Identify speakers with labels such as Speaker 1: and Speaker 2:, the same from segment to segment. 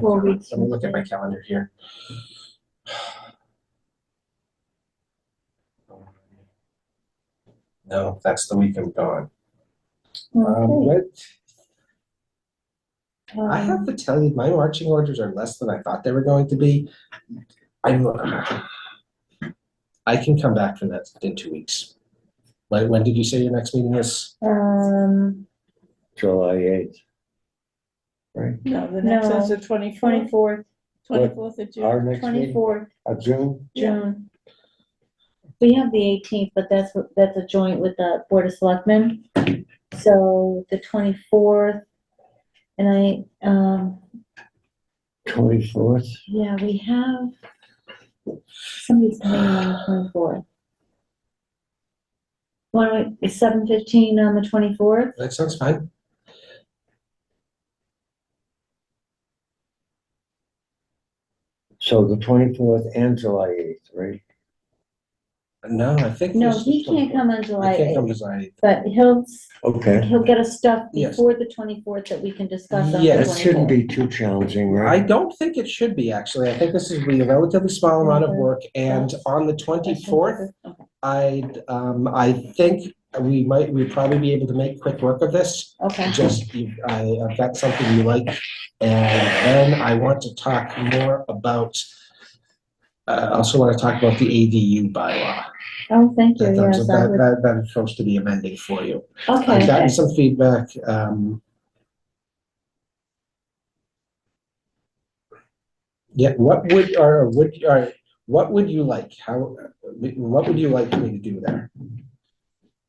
Speaker 1: Four weeks.
Speaker 2: Let me look at my calendar here. No, that's the week I'm gone. Um,
Speaker 1: Okay,
Speaker 2: what, I have
Speaker 1: um,
Speaker 2: to tell you, my marching orders are less than I thought they were going to be. I'm, I can come back for that in two weeks. When, when did you say your next meeting is?
Speaker 1: Um,
Speaker 3: July eighth. Right,
Speaker 4: No, the next
Speaker 1: No.
Speaker 4: one's the twenty-fourth,
Speaker 1: twenty-fourth,
Speaker 4: twenty-fourth of June.
Speaker 3: our next meeting,
Speaker 1: twenty-fourth,
Speaker 3: uh, June,
Speaker 1: June. We have the eighteenth, but that's, that's a joint with the Board of Selectmen. So the twenty-fourth, and I, um,
Speaker 3: twenty-fourth,
Speaker 1: yeah, we have somebody's coming on the twenty-fourth. Why don't we, it's seven fifteen on the twenty-fourth?
Speaker 2: That sounds fine.
Speaker 3: so the twenty-fourth and July eighth, right?
Speaker 2: No, I think.
Speaker 1: No,
Speaker 2: this is
Speaker 1: he can't
Speaker 2: 24.
Speaker 1: come on
Speaker 2: I
Speaker 1: July
Speaker 2: can't come
Speaker 1: eighth,
Speaker 2: to Zion.
Speaker 1: but he'll,
Speaker 3: Okay,
Speaker 1: he'll get us stuff
Speaker 2: Yes.
Speaker 1: before the twenty-fourth that we can discuss on the
Speaker 2: Yes.
Speaker 3: that
Speaker 1: twenty-fourth.
Speaker 3: shouldn't be too challenging,
Speaker 2: I
Speaker 3: right?
Speaker 2: don't think it should be, actually. I think this is be a relatively small amount
Speaker 1: Mm-hmm.
Speaker 2: of work, and on the twenty-fourth, I, um, I think we might, we'd probably be able to make quick work of this.
Speaker 1: Okay,
Speaker 2: Just, you- I, I've got something you like, and then I want to talk more about, uh, I also want to talk about the ADU bylaw.
Speaker 1: oh, thank you,
Speaker 2: That,
Speaker 1: yes,
Speaker 2: that,
Speaker 1: I would,
Speaker 2: that, that I'm supposed to be amending for you. I've
Speaker 1: okay,
Speaker 2: gotten some feedback, um. Yeah, what would, or would, or what would you like, how, what would you like me to do there?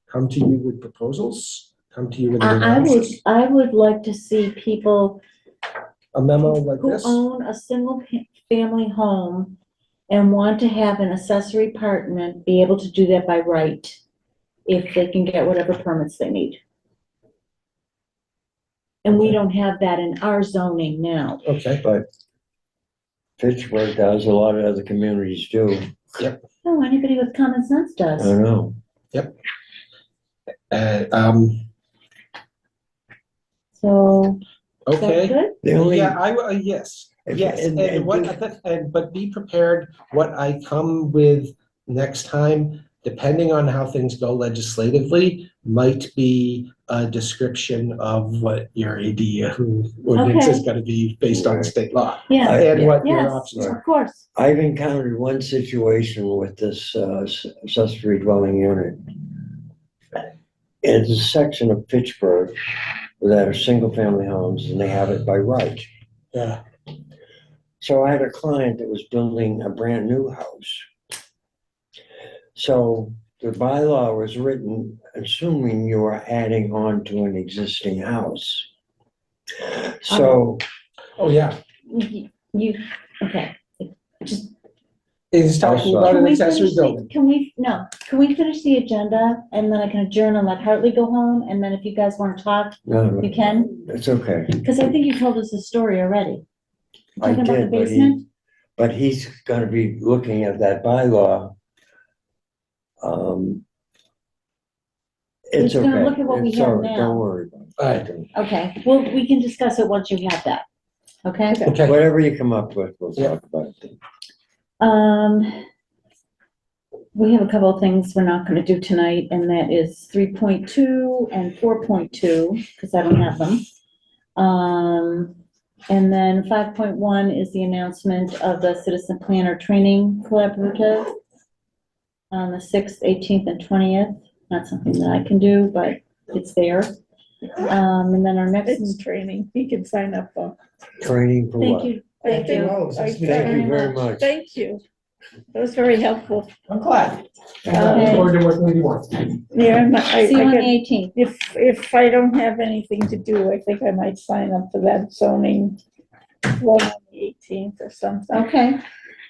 Speaker 2: Come to you with proposals, come to you with.
Speaker 1: I, I would,
Speaker 2: analysis?
Speaker 1: I would like to see people
Speaker 2: A memo like
Speaker 1: who
Speaker 2: this,
Speaker 1: own a single pa- family home and want to have an accessory apartment be able to do that by right, if they can get whatever permits they need. And we
Speaker 2: Okay.
Speaker 1: don't have that in our zoning now.
Speaker 2: okay,
Speaker 3: Pittsburgh does, a lot of other communities do,
Speaker 1: No, Oh, anybody with common sense
Speaker 3: I
Speaker 1: does.
Speaker 3: don't know.
Speaker 2: uh, um,
Speaker 1: So, is that
Speaker 2: okay.
Speaker 1: good?
Speaker 3: The only,
Speaker 2: Yeah, I, w- uh, yes,
Speaker 3: If-
Speaker 2: yes,
Speaker 3: and-
Speaker 2: and
Speaker 3: and
Speaker 2: what,
Speaker 3: do-
Speaker 2: and, but be prepared, what I come with next time, depending on how things go legislatively, might be a description of what your ADU ordinance is
Speaker 1: Okay.
Speaker 2: gonna be based on
Speaker 3: Right.
Speaker 2: state law.
Speaker 1: Yeah,
Speaker 3: I-
Speaker 2: And what your
Speaker 1: yes,
Speaker 2: options are.
Speaker 1: of course.
Speaker 3: I've encountered one situation with this, uh, s- accessory dwelling unit. It's a section of Pittsburgh that are single-family homes, and they have it by right.
Speaker 2: Yeah,
Speaker 3: So I had a client that was building a brand new house. So the bylaw was written assuming you were adding on to an existing house. So
Speaker 1: Uh-huh.
Speaker 2: oh, yeah,
Speaker 1: You, you- okay. Just-
Speaker 2: it's talking about
Speaker 1: Can
Speaker 2: an
Speaker 1: we finish
Speaker 2: accessory
Speaker 1: the-
Speaker 2: building.
Speaker 1: Can we, no, can we finish the agenda and then I can adjourn and let Hartley go home? And then if you guys want to talk,
Speaker 3: no,
Speaker 1: you can?
Speaker 3: it's okay.
Speaker 1: Because I think you told us the story already. Talking
Speaker 3: I
Speaker 1: about the
Speaker 3: did, but he,
Speaker 1: basement?
Speaker 3: but he's gonna be looking at that bylaw. Um, It's
Speaker 1: He's gonna
Speaker 3: okay.
Speaker 1: look at what we
Speaker 3: It's
Speaker 1: have
Speaker 3: all right.
Speaker 1: now.
Speaker 3: Don't worry about
Speaker 2: Alright,
Speaker 3: it.
Speaker 1: Okay, well, we can discuss it once you have that. Okay?
Speaker 2: okay,
Speaker 3: Whatever you come up with, we'll
Speaker 2: Yeah.
Speaker 3: talk about it.
Speaker 1: Um, we have a couple of things we're not gonna do tonight, and that is three point two and four point two, because I don't have them. Um, and then five point one is the announcement of the Citizen Planner Training Collaborative on the sixth, eighteenth, and twentieth. Not something that I can do, but it's there. Um, and then our next,
Speaker 4: it's training, he can sign up for.
Speaker 3: Training for what?
Speaker 1: thank you,
Speaker 4: I
Speaker 1: thank you.
Speaker 4: think- I
Speaker 3: Thank you
Speaker 4: think-
Speaker 3: very much.
Speaker 4: Thank you, that was very helpful.
Speaker 2: I'm glad.
Speaker 4: Okay.
Speaker 2: Looking forward to working with you more.
Speaker 4: Yeah, I'm not- I, I
Speaker 1: See you on the
Speaker 4: get-
Speaker 1: eighteenth.
Speaker 4: if, if I don't have anything to do, I think I might sign up for that zoning one on the eighteenth or something.
Speaker 1: Okay,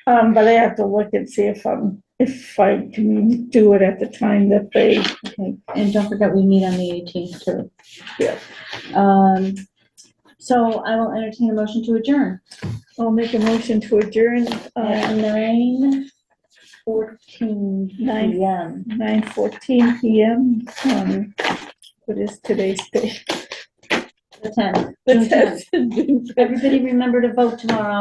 Speaker 4: Um, but I have to look and see if I'm, if I can do it at the time that they,
Speaker 1: Okay, and don't forget, we meet on the eighteenth too.
Speaker 4: Yeah.
Speaker 1: Um, so I will entertain a motion to adjourn
Speaker 4: I'll make a motion to adjourn, uh,
Speaker 1: at nine fourteen
Speaker 4: Nine.
Speaker 1: PM.
Speaker 4: nine fourteen PM, um, what is today's date?
Speaker 1: The tenth.
Speaker 4: The
Speaker 1: June tenth.
Speaker 4: tenth.
Speaker 1: Everybody remember to vote tomorrow.